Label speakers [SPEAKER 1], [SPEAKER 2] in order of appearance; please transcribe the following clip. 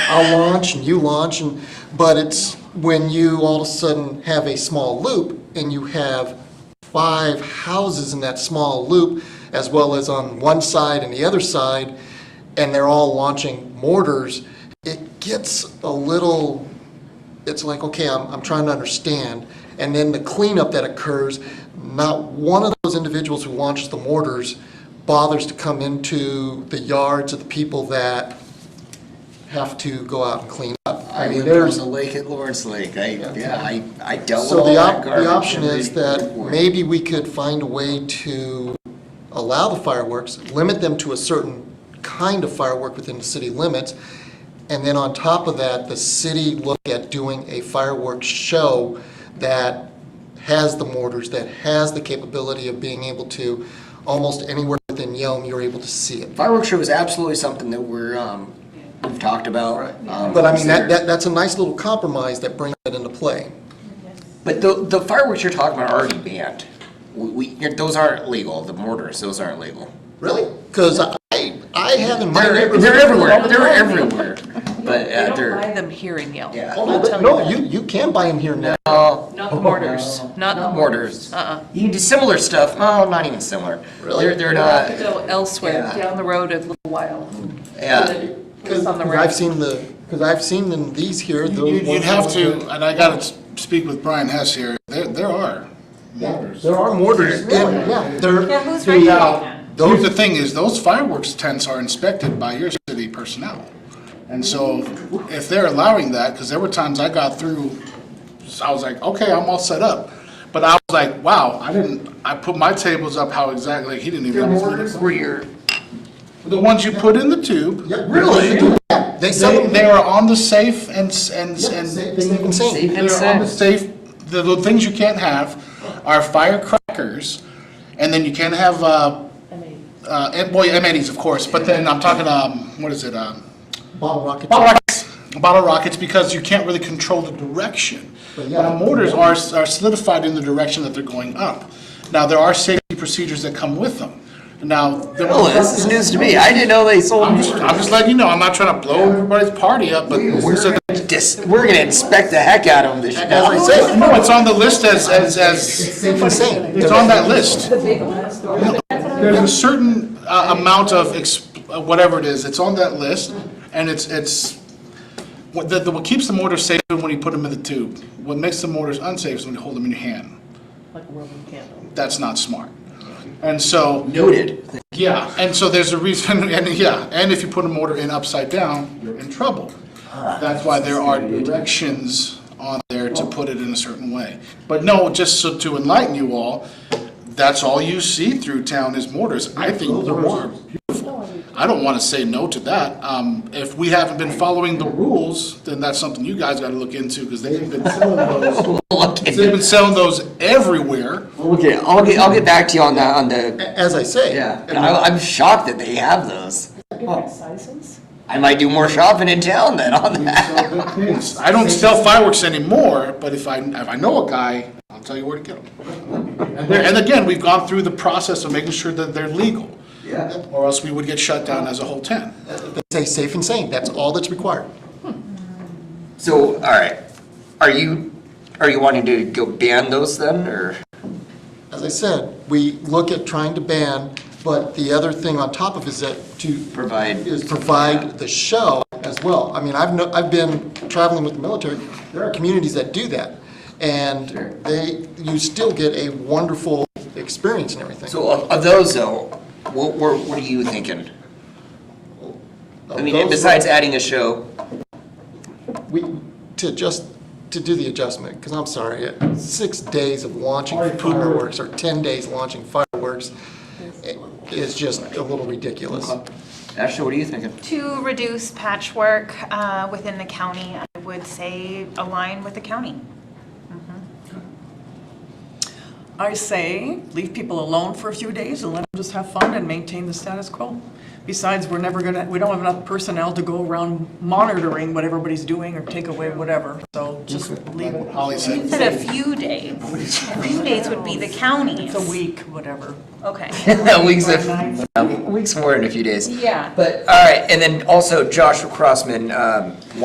[SPEAKER 1] I'll launch and you launch and, but it's when you all of a sudden have a small loop and you have five houses in that small loop, as well as on one side and the other side, and they're all launching mortars, it gets a little, it's like, okay, I'm, I'm trying to understand. And then the cleanup that occurs, not one of those individuals who launches the mortars bothers to come into the yards of the people that have to go out and clean up.
[SPEAKER 2] I
[SPEAKER 1] mean,
[SPEAKER 2] lived
[SPEAKER 1] there's.
[SPEAKER 2] on the lake at Lawrence Lake, I, yeah, I, I dealt with
[SPEAKER 1] So
[SPEAKER 2] all
[SPEAKER 1] the
[SPEAKER 2] that
[SPEAKER 1] op,
[SPEAKER 2] garbage.
[SPEAKER 1] the option
[SPEAKER 2] every
[SPEAKER 1] is that
[SPEAKER 2] morning.
[SPEAKER 1] maybe we could find a way to allow the fireworks, limit them to a certain kind of firework within the city limits, and then on top of that, the city look at doing a fireworks show that has the mortars, that has the capability of being able to, almost anywhere within Yelm, you're able to see it.
[SPEAKER 2] Fireworks show is absolutely something that we're, um, we've talked about. um,
[SPEAKER 1] But I mean, that,
[SPEAKER 2] considered.
[SPEAKER 1] that, that's a nice little compromise that brings that into play.
[SPEAKER 2] But the, the fireworks you're talking about are already banned. We, we, you're- those aren't legal, the mortars, those aren't legal.
[SPEAKER 1] Really? Because I, I have in my
[SPEAKER 2] They're,
[SPEAKER 1] neighborhood.
[SPEAKER 2] they're everywhere, they're everywhere, but,
[SPEAKER 3] We
[SPEAKER 2] uh,
[SPEAKER 3] don't buy
[SPEAKER 2] they're,
[SPEAKER 3] them here in Yelm.
[SPEAKER 2] Yeah.
[SPEAKER 1] Oh,
[SPEAKER 3] I'll
[SPEAKER 1] no, but-
[SPEAKER 3] tell
[SPEAKER 1] no,
[SPEAKER 3] that.
[SPEAKER 1] you, you can buy them here now.
[SPEAKER 2] oh,
[SPEAKER 3] Not the mortars, not the
[SPEAKER 2] mortars.
[SPEAKER 3] Uh-uh.
[SPEAKER 2] You can do similar stuff, oh, not even similar.
[SPEAKER 1] Really?
[SPEAKER 2] They're, they're
[SPEAKER 3] We'll have to
[SPEAKER 2] not,
[SPEAKER 3] go elsewhere,
[SPEAKER 2] Yeah.
[SPEAKER 3] down the road a little while.
[SPEAKER 2] yeah.
[SPEAKER 3] It's on the
[SPEAKER 1] Because I've
[SPEAKER 3] road.
[SPEAKER 1] seen the, because I've seen them, these here,
[SPEAKER 4] You-
[SPEAKER 1] those ones.
[SPEAKER 4] You'd have to,
[SPEAKER 1] that-
[SPEAKER 4] and I gotta s- speak with Brian Hess here, there, there are mortars.
[SPEAKER 1] There are mortars, in- yeah, they're.
[SPEAKER 5] Yeah, who's
[SPEAKER 1] the-
[SPEAKER 5] regulating
[SPEAKER 4] Now,
[SPEAKER 5] that?
[SPEAKER 4] here's the thing is, those fireworks tents are inspected by your city personnel. And so if they're allowing that, because there were times I got through, I was like, okay, I'm all set up. But I was like, wow, I didn't, I put my tables up how exactly, like, he didn't even.
[SPEAKER 2] were your.
[SPEAKER 4] The ones you put in the tube.
[SPEAKER 1] Yeah, really? They sell
[SPEAKER 4] They,
[SPEAKER 1] them.
[SPEAKER 4] they are on the safe and, s- and, s- and.
[SPEAKER 1] They they make them sing.
[SPEAKER 2] Safe and
[SPEAKER 4] They're on the
[SPEAKER 2] sound.
[SPEAKER 4] safe, the little things you can't have are firecrackers, and then you can have, uh, uh, and- boy, M80s, of course, but then I'm talking, um, what is it, um,
[SPEAKER 1] Bottle rocket.
[SPEAKER 4] bottle rockets, bottle rockets, because you can't really control the direction.
[SPEAKER 1] But
[SPEAKER 4] But
[SPEAKER 1] yeah.
[SPEAKER 4] the mortars are, are solidified in the direction that they're going up. Now, there are safety procedures that come with them. Now, the-
[SPEAKER 2] Oh, this is news to me, I didn't know they sold.
[SPEAKER 4] I'm just, I'm just letting you know, I'm not trying to blow everybody's party up, but this is a
[SPEAKER 2] Dis- we're gonna inspect the heck out of them this year.
[SPEAKER 1] As I say,
[SPEAKER 4] No, it's on the list as, as, as,
[SPEAKER 1] they can sing.
[SPEAKER 4] it's on that list. There's a certain uh, amount of, ex- uh, whatever it is, it's on that list, and it's, it's, what, the- the- what keeps the mortar safe is when you put them in the tube. What makes the mortars unsafe is when you hold them in your hand.
[SPEAKER 3] Like a Roman candle.
[SPEAKER 4] That's not smart. And so,
[SPEAKER 2] Noted.
[SPEAKER 4] yeah, and so there's a reason, and yeah, and if you put a mortar in upside down, you're in trouble. That's why there are directions on there to put it in a certain way. But no, just so to enlighten you all, that's all you see through town is mortars. I think mortars are beautiful. I don't want to say no to that. Um, if we haven't been following the rules, then that's something you guys got to look into because they've been selling those.
[SPEAKER 2] Okay,
[SPEAKER 4] They've been selling those everywhere.
[SPEAKER 2] okay, I'll get, I'll get back to you on that, on the,
[SPEAKER 1] As I say.
[SPEAKER 2] yeah, And I, I'm shocked that they have those.
[SPEAKER 1] Oh.
[SPEAKER 3] Different sizes?
[SPEAKER 2] I might do more shopping in town then on that.
[SPEAKER 4] I don't sell fireworks anymore, but if I, if I know a guy, I'll tell you where to get them. And there- And again, we've gone through the process of making sure that they're legal,
[SPEAKER 2] Yeah.
[SPEAKER 4] or else we would get shut down as a whole tent.
[SPEAKER 1] They say safe and sane, that's all that's required.
[SPEAKER 2] So, alright, are you, are you wanting to go ban those then, or?
[SPEAKER 1] As I said, we look at trying to ban, but the other thing on top of is that to.
[SPEAKER 2] Provide.
[SPEAKER 1] Is provide the show as well. I mean, I've, no- I've been traveling with the military, there are communities that do that. And they, you still get a wonderful experience and everything.
[SPEAKER 2] So of, of those though, what, what, what are you thinking? I mean,
[SPEAKER 1] Those-
[SPEAKER 2] besides adding a show,
[SPEAKER 1] We, to just, to do the adjustment, because I'm sorry, uh, six days of launching fireworks or 10 days launching fireworks i- is just a little ridiculous.
[SPEAKER 2] Uh-huh. Ashley, what are you thinking?
[SPEAKER 5] To reduce patchwork uh, within the county, I would say align with the county.
[SPEAKER 6] I say, leave people alone for a few days and let them just have fun and maintain the status quo. Besides, we're never gonna, we don't have enough personnel to go around monitoring what everybody's doing or take away whatever, so just leave it.
[SPEAKER 4] Holly
[SPEAKER 5] You
[SPEAKER 4] said,
[SPEAKER 5] said a few days. A few days would be the county's.
[SPEAKER 6] It's a week, whatever.
[SPEAKER 5] Okay.
[SPEAKER 2] Weeks, of- yeah, weeks more in a few days.
[SPEAKER 5] Yeah.
[SPEAKER 2] But, all right, and then also Joshua Crossman, um,